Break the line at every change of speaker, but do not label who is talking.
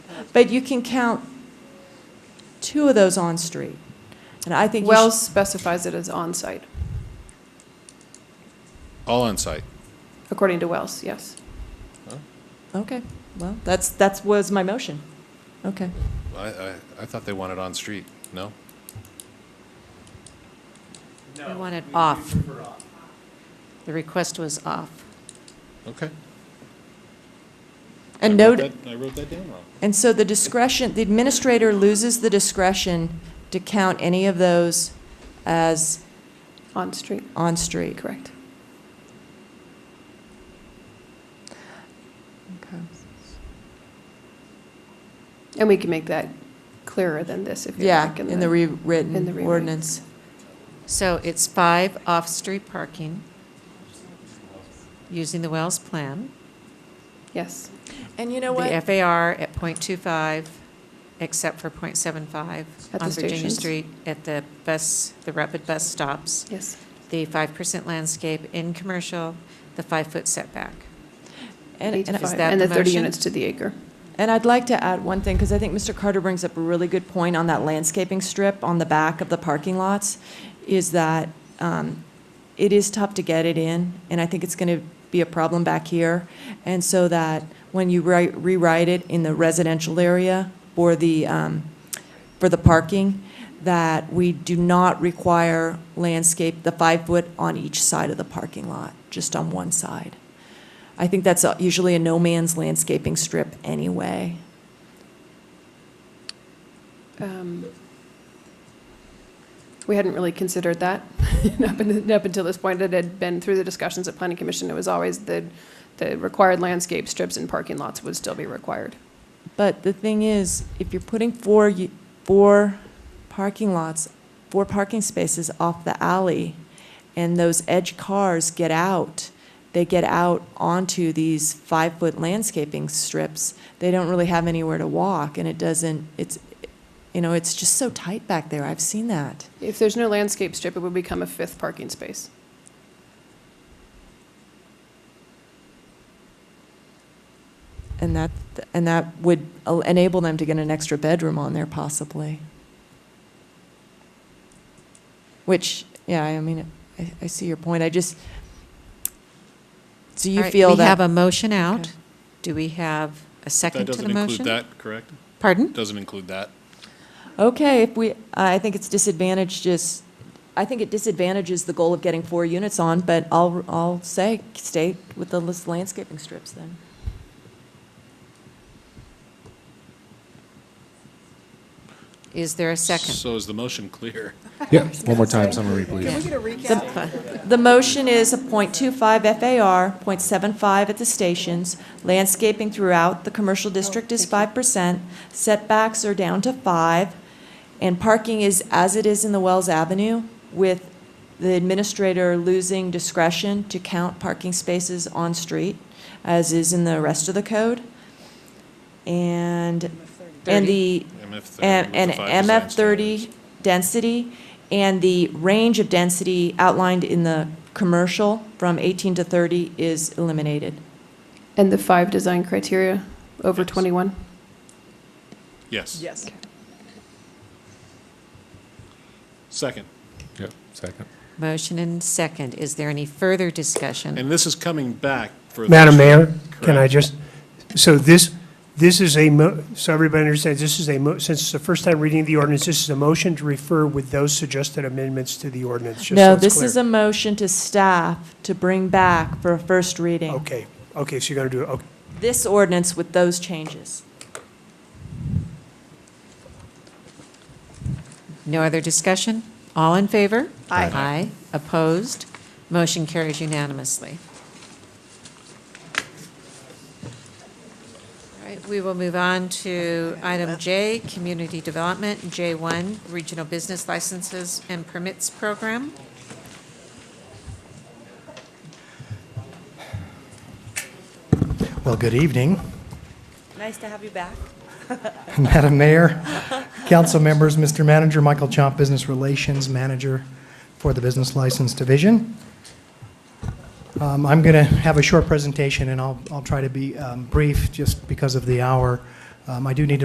But you can count two of those on-street. And I think you
Wells
should,
specifies it as on-site,
All on site.
according to Wells, yes.
okay, well, that's, that was my motion. Okay.
I, I, I thought they wanted on street. No?
We want it off. The request was off.
Okay.
And no,
I wrote that down wrong.
and so the discretion, the administrator loses the discretion to count any of those as
On-street,
on-street.
correct.
Okay.
And we can make that clearer than this if you
Yeah,
like.
in the
in the
rewritten
rewrite.
ordinance.
So it's five off-street parking using the Wells plan,
Yes,
And you know what?
the FAR at .25, except for .75
At the
on Virginia
stations.
Street at the bus, the rapid bus stops,
yes.
the 5% landscape in commercial, the five-foot setback.
And-
Eight to
and I-
is
five,
that
And the
the
30
motion?
units to the acre.
And I'd like to add one thing, because I think Mr. Carter brings up a really good point on that landscaping strip on the back of the parking lots, is that um, it is tough to get it in, and I think it's going to be a problem back here. And so that when you ri- rewrite it in the residential area or the, um, for the parking, that we do not require landscape, the five-foot on each side of the parking lot, just on one side. I think that's uh, usually a no man's landscaping strip anyway.
Um, We hadn't really considered that up in- up until this point. It had been through the discussions at Planning Commission. It was always the, the required landscape strips and parking lots would still be required.
But the thing is, if you're putting four, y- four parking lots, four parking spaces off the alley, and those edge cars get out, they get out onto these five-foot landscaping strips, they don't really have anywhere to walk, and it doesn't, it's, you know, it's just so tight back there, I've seen that.
If there's no landscape strip, it would become a fifth parking space.
And that, and that would el- enable them to get an extra bedroom on there possibly. Which, yeah, I mean, I, I see your point, I just, do
All
you
right,
feel
We have a
that?
motion out.
Okay.
Do we have a second
That
to the
doesn't
motion?
include that, correct?
Pardon?
Doesn't include that.
Okay, if we, I think it's disadvantaged, just, I think it disadvantages the goal of getting four units on, but I'll, I'll say, stay with the lis- landscaping strips then.
Is there a second?
So is the motion clear?
Yeah, one more time, summary, please.
The motion is a .25 FAR, .75 at the stations, landscaping throughout the commercial district is 5%, setbacks are down to 5, and parking is as it is in the Wells Avenue, with the administrator losing discretion to count parking spaces on-street, as is in the rest of the code. And, and the
MF thirty.
and
with the five design
MF thirty
standards.
density and the range of density outlined in the commercial from eighteen to thirty is eliminated.
And the five design criteria over
Yes.
21?
Yes.
Yes.
Second.
Yeah, second.
Motion and second. Is there any further discussion?
And this is coming back for.
Madam
additional-
Mayor, can I
Correct.
just, so this, this is a, mo- so everybody understands, this is a, mo- since it's the first time reading the ordinance, this is a motion to refer with those suggested amendments to the ordinance, just so
No,
it's
this is a
clear.
motion to staff to bring back for a first reading,
Okay, okay, so you're gonna do, it. okay.
this ordinance with those changes.
No other discussion? All in favor?
Aye.
Aye. Opposed? Motion carries unanimously. All right, we will move on to item J, Community Development, J1, Regional Business Licenses and Permits Program.
Well, good evening,
Nice to have you back.
Madam Mayor, council members, Mr. Manager, Michael Chomp, Business Relations Manager for the Business License Division. Um, I'm going to have a short presentation, and I'll I'll try to be um, brief just because of the hour. Um, I do need to